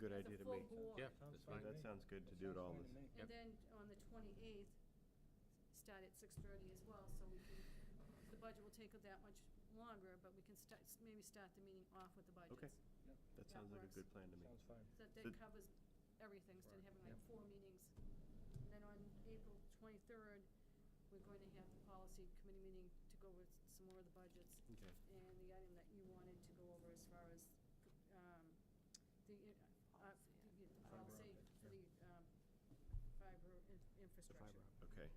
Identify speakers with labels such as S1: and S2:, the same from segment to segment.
S1: good
S2: As a
S1: idea to
S2: full
S1: make.
S2: board.
S3: Yeah,
S4: Sounds
S3: that's
S4: fine to
S3: fine.
S1: That
S4: me.
S1: sounds good to
S4: That
S1: do it
S4: sounds
S1: all
S4: fine
S1: this.
S4: to me.
S3: Yep.
S2: And then on the twenty-eighth, start at six-thirty as well, so we can, the budget will take that much longer, but we can start, maybe start the meeting off with the budgets.
S4: Yep,
S1: That
S2: That
S1: sounds like a
S2: works.
S1: good plan to me.
S4: Sounds fine.
S2: So that
S1: So-
S2: that covers everything, instead of having like
S4: Yep.
S2: four meetings. And then on April twenty-third, we're going to have the policy committee meeting to go over some more of the budgets.
S1: Okay.
S2: And the item that you wanted to go over as far as, um, the, uh, uh, the policy
S4: optic,
S2: for the,
S4: yeah.
S2: um, fiber in- infrastructure.
S1: Okay.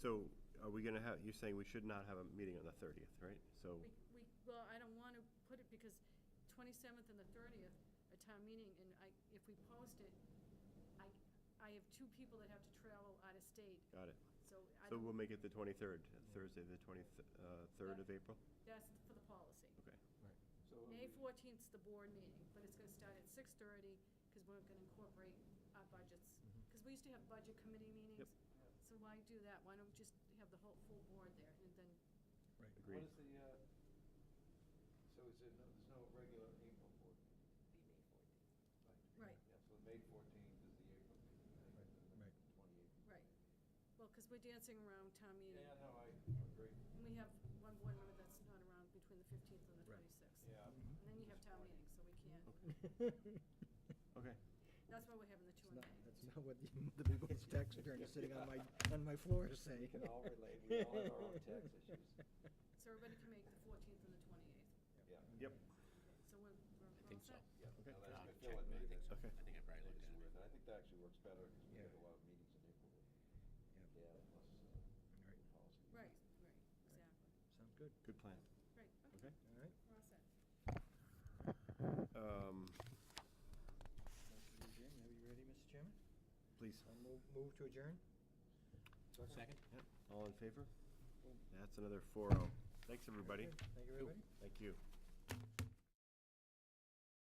S1: So are we going to have, you're saying we should not have a meeting on the 30th, right? So,
S2: We, we, well, I don't want to put it because 27th and the 30th are town meeting, and I, if we post it, I, I have two people that have to travel out of state,
S1: got it.
S2: so I
S1: So
S2: don't-
S1: we'll make it the 23rd, Thursday, the 23rd of April?
S2: That's for the policy.
S1: Okay.
S4: Right.
S2: May 14th's the board meeting, but it's going to start at 6:30, because we're going to incorporate our budgets.
S1: Mm-hmm.
S4: Mhm.
S2: Because we used to have budget committee meetings, so why do that? Why don't we just have the whole, full board there, and then,
S4: Right.
S1: Agreed.
S5: What is the, uh, so is there, no- there's no regular April board meeting?
S6: be May fourteenth.
S2: Right.
S5: Yeah, so the May fourteenth is the April meeting,
S4: Right,
S5: and then
S4: right.
S5: the twenty-eighth.
S2: right. Well, because we're dancing around town meeting.
S5: Yeah, no, I agree.
S2: And we have one board member that's not around between the 15th and the
S4: Right.
S2: 26th.
S5: Yeah.
S2: And then you have town meetings, so we can't,
S1: Okay.
S2: that's why we're having the two and
S4: It's not-
S2: three.
S4: That's not what the the big old tax attorney sitting on my, on my floor is saying.
S5: We can all relate. We all have our own tax issues.
S2: So everybody can make the 14th and the 28th.
S5: Yeah.
S1: Yep.
S2: So we're, we're
S3: I
S2: all
S3: think
S2: set?
S3: so.
S5: Yeah,
S1: Okay.
S5: no, that's
S3: I'll
S5: good. Phil
S3: check,
S5: had
S3: but I
S5: made
S3: think
S5: that.
S3: so.
S1: Okay.
S3: I think I probably
S5: It is
S3: looked at it.
S5: worth I think that actually works better, because we
S4: Yeah.
S5: have a lot of meetings in April.
S4: Yeah.
S5: Yeah, plus, uh,
S4: Right.
S2: Right,
S5: policy.
S2: right, exactly.
S4: Sounds good.
S1: Good plan.
S2: Right, okay,
S1: Okay.
S4: All right.
S2: we're all set.
S1: Um,
S4: Motion to adjourn. Are you ready, Mr. Chairman?
S1: Please.
S4: I'll move, move to adjourn.
S3: Second?
S1: Yep. All in favor? That's another 4-0. oh. Thanks, everybody.
S4: Thank you, everybody.
S1: Thank you.